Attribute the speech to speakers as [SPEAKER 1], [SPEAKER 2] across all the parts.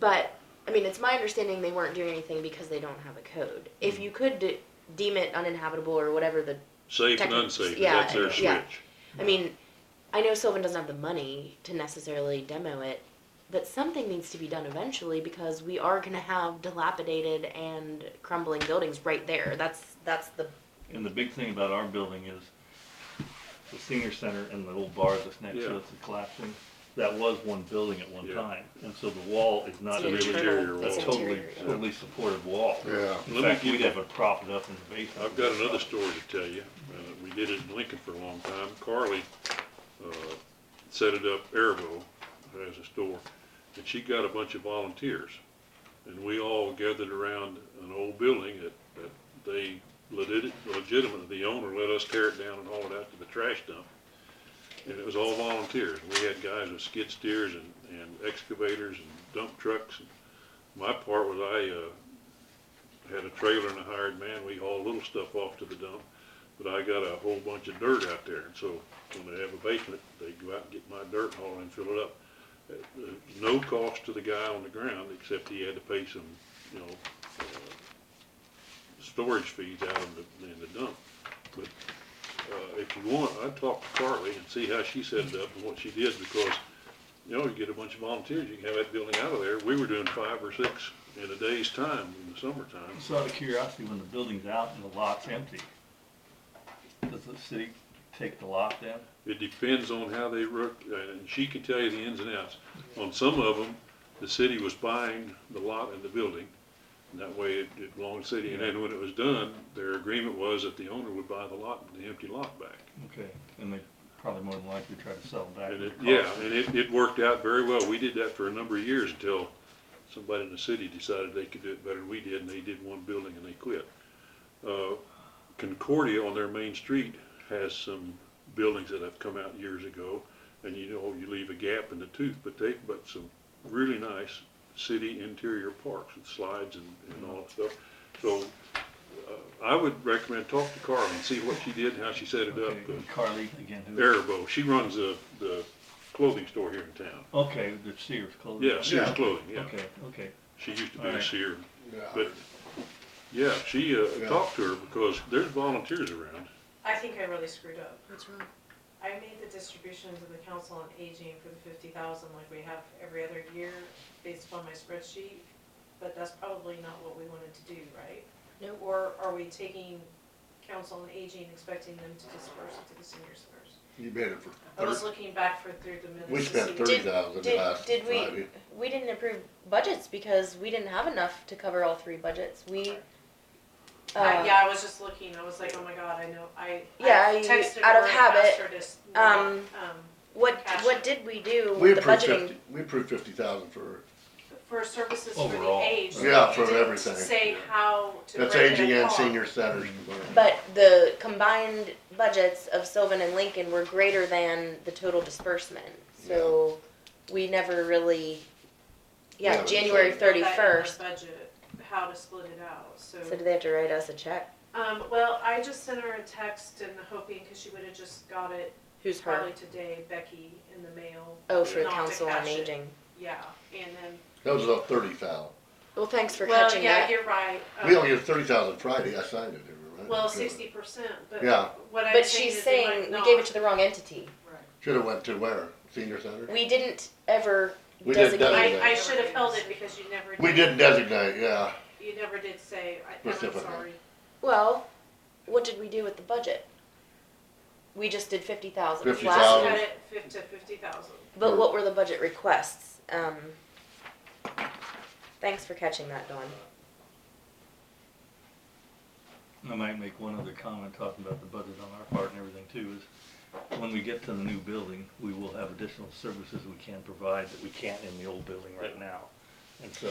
[SPEAKER 1] But I mean, it's my understanding they weren't doing anything because they don't have a code. If you could de- deem it uninhabitable or whatever the,
[SPEAKER 2] Safe and
[SPEAKER 1] Technic-
[SPEAKER 2] unsafe,
[SPEAKER 1] yeah,
[SPEAKER 2] that's their
[SPEAKER 1] yeah.
[SPEAKER 2] switch.
[SPEAKER 1] I mean, I know Sylvan doesn't have the money to necessarily demo it, but something needs to be done eventually because we are going to have dilapidated and crumbling buildings right there. That's that's the
[SPEAKER 3] And the big thing about our building is the senior center and the old bar that's next
[SPEAKER 2] Yeah.
[SPEAKER 3] to us is collapsing. That was one building at one
[SPEAKER 2] Yeah.
[SPEAKER 3] time, and so the wall is not
[SPEAKER 1] an
[SPEAKER 2] an
[SPEAKER 3] really
[SPEAKER 2] interior
[SPEAKER 1] internal-
[SPEAKER 2] wall.
[SPEAKER 3] a
[SPEAKER 1] it's an
[SPEAKER 3] totally,
[SPEAKER 1] interior wall.
[SPEAKER 3] totally supported wall.
[SPEAKER 4] Yeah.
[SPEAKER 3] In
[SPEAKER 2] Let me
[SPEAKER 3] fact,
[SPEAKER 2] give
[SPEAKER 3] we'd
[SPEAKER 2] you-
[SPEAKER 3] have it propped up in the basement.
[SPEAKER 2] I've got another story to tell you. Uh, we did it in Lincoln for a long time. Carly, uh, set it up, Airvo, as a store, and she got a bunch of volunteers. And we all gathered around an old building that, that they legit- legitimately, the owner let us tear it down and haul it out to the trash dump. And it was all volunteers. We had guys with skid steers and, and excavators and dump trucks. My part was I, uh, had a trailer and a hired man, we hauled little stuff off to the dump, but I got a whole bunch of dirt out there, and so when they have a basement, they go out and get my dirt and haul it and fill it up. At, uh, No cost to the guy on the ground, except he had to pay some, you know, uh, storage fees out in the, in the dump. But, uh, if you want, I'd talk to Carly and see how she set it up and what she did, because, you know, you get a bunch of volunteers, you can have that building out of there, we were doing five or six in a day's time in the summertime.
[SPEAKER 3] So out of curiosity, when the building's out and the lot's empty, does the city take the lot then?
[SPEAKER 2] It depends on how they work, and she can tell you the ins and outs. On some of them, the city was buying the lot and the building, and that way it it belonged to the city. And then when it was done, their agreement was that the owner would buy the lot, the empty lot back.
[SPEAKER 3] Okay, and they probably more than likely try to sell back.
[SPEAKER 2] And
[SPEAKER 3] the
[SPEAKER 2] it,
[SPEAKER 3] cost.
[SPEAKER 2] yeah, and it, it worked out very well. We did that for a number of years until somebody in the city decided they could do it better than we did, and they did one building and they quit. Uh, Concordia on their main street has some buildings that have come out years ago, and you know, you leave a gap in the tooth, but they've got some really nice city interior parks with slides and, and all that stuff. So, uh, I would recommend talk to Carla and see what she did, how she set it up,
[SPEAKER 3] Okay,
[SPEAKER 2] 'cause
[SPEAKER 3] and Carly, again, who?
[SPEAKER 2] Erbo. She runs the, the clothing store here in town.
[SPEAKER 3] Okay, the Sears clothing.
[SPEAKER 2] Yeah, Sears Clothing, yeah.
[SPEAKER 3] Okay, okay.
[SPEAKER 2] She used to be a
[SPEAKER 3] Alright.
[SPEAKER 2] seer.
[SPEAKER 4] Yeah.
[SPEAKER 2] But, yeah, she, uh,
[SPEAKER 4] Yeah.
[SPEAKER 2] talked to her because there's volunteers around.
[SPEAKER 5] I think I really screwed up.
[SPEAKER 1] What's wrong?
[SPEAKER 5] I made the distribution to the council on aging for the fifty thousand like we have every other year based upon my spreadsheet, but that's probably not what we wanted to do, right?
[SPEAKER 1] No.
[SPEAKER 5] Or are we taking council on aging, expecting them to disperse it to the senior centers?
[SPEAKER 4] You made it for
[SPEAKER 5] I was
[SPEAKER 4] thirty-
[SPEAKER 5] looking back for through the minutes.
[SPEAKER 4] we
[SPEAKER 5] to
[SPEAKER 4] spent
[SPEAKER 5] see-
[SPEAKER 4] thirty thousand
[SPEAKER 1] Oh, Did,
[SPEAKER 4] last
[SPEAKER 1] did we,
[SPEAKER 4] Friday.
[SPEAKER 1] we didn't approve budgets because we didn't have enough to cover all three budgets. We,
[SPEAKER 5] I-
[SPEAKER 1] uh,
[SPEAKER 5] Yeah, I was just looking, I was like, oh my god, I know, I. I
[SPEAKER 1] Yeah, you-
[SPEAKER 5] texted
[SPEAKER 1] out of
[SPEAKER 5] her and
[SPEAKER 1] habit,
[SPEAKER 5] asked her to s- not,
[SPEAKER 1] um,
[SPEAKER 5] um,
[SPEAKER 1] what,
[SPEAKER 5] Cash.
[SPEAKER 1] what did we do
[SPEAKER 4] We
[SPEAKER 1] with the
[SPEAKER 4] approved
[SPEAKER 1] budgeting?
[SPEAKER 4] fifty, we approved fifty thousand for,
[SPEAKER 5] For services for the
[SPEAKER 3] Overall.
[SPEAKER 5] aged.
[SPEAKER 4] Yeah,
[SPEAKER 5] but
[SPEAKER 4] for
[SPEAKER 5] you didn't
[SPEAKER 4] everything.
[SPEAKER 5] Say how to.
[SPEAKER 4] that's
[SPEAKER 5] break it
[SPEAKER 4] aging and
[SPEAKER 5] apart.
[SPEAKER 4] senior centers.
[SPEAKER 1] But the combined budgets of Sylvan and Lincoln were greater than the total disbursement, so we never really,
[SPEAKER 4] Yeah,
[SPEAKER 1] yeah,
[SPEAKER 4] that's
[SPEAKER 1] January
[SPEAKER 4] right.
[SPEAKER 5] Put that in the
[SPEAKER 1] thirty-first.
[SPEAKER 5] Budget, how to split it out, so,
[SPEAKER 1] So do they have to write us a check?
[SPEAKER 5] um, well, I just sent her a text and hoping, cause she would've just got it
[SPEAKER 1] Who's her?
[SPEAKER 5] probably today, Becky, in the mail,
[SPEAKER 1] Oh, for
[SPEAKER 5] Not to
[SPEAKER 1] council on
[SPEAKER 5] cash it.
[SPEAKER 1] aging.
[SPEAKER 5] yeah, and then,
[SPEAKER 4] That was about thirty thousand.
[SPEAKER 1] Well, thanks for
[SPEAKER 5] well,
[SPEAKER 1] catching
[SPEAKER 5] yeah,
[SPEAKER 1] that.
[SPEAKER 5] you're right. um,
[SPEAKER 4] We
[SPEAKER 1] Oh.
[SPEAKER 4] only had thirty thousand Friday, I signed it, remember?
[SPEAKER 5] Well, sixty percent, but
[SPEAKER 4] Yeah.
[SPEAKER 5] what I'm saying
[SPEAKER 1] But she's
[SPEAKER 5] is they might
[SPEAKER 1] saying we
[SPEAKER 5] not-
[SPEAKER 1] gave it to the wrong entity.
[SPEAKER 5] Right.
[SPEAKER 4] Should've went to where? Senior center?
[SPEAKER 1] We didn't ever
[SPEAKER 4] We didn't
[SPEAKER 1] designate.
[SPEAKER 4] designate.
[SPEAKER 5] I, I should have held it because you never.
[SPEAKER 4] We didn't designate, yeah.
[SPEAKER 5] You never did say, I, I'm
[SPEAKER 4] Specifically.
[SPEAKER 5] sorry,
[SPEAKER 1] Well, what did we do with the budget? We just did fifty thousand
[SPEAKER 4] Fifty
[SPEAKER 1] last
[SPEAKER 5] last
[SPEAKER 4] thousand.
[SPEAKER 1] year.
[SPEAKER 5] cut it fif- to fifty thousand.
[SPEAKER 1] But what were the budget requests? Um, thanks for catching that, Dawn.
[SPEAKER 3] I might make one other comment talking about the budget on our part and everything too, is when we get to the new building, we will have additional services we can provide that we can't in the old building right now. And so,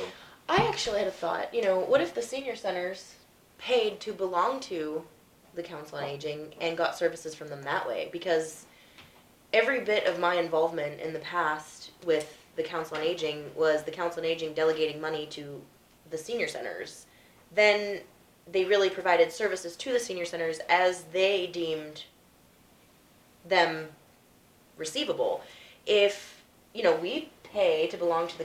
[SPEAKER 1] I actually had a thought, you know, what if the senior centers paid to belong to the Council on Aging and got services from them that way? Because every bit of my involvement in the past with the Council on Aging was the Council on Aging delegating money to the senior centers. Then they really provided services to the senior centers as they deemed them receivable. If, you know, we pay to belong to the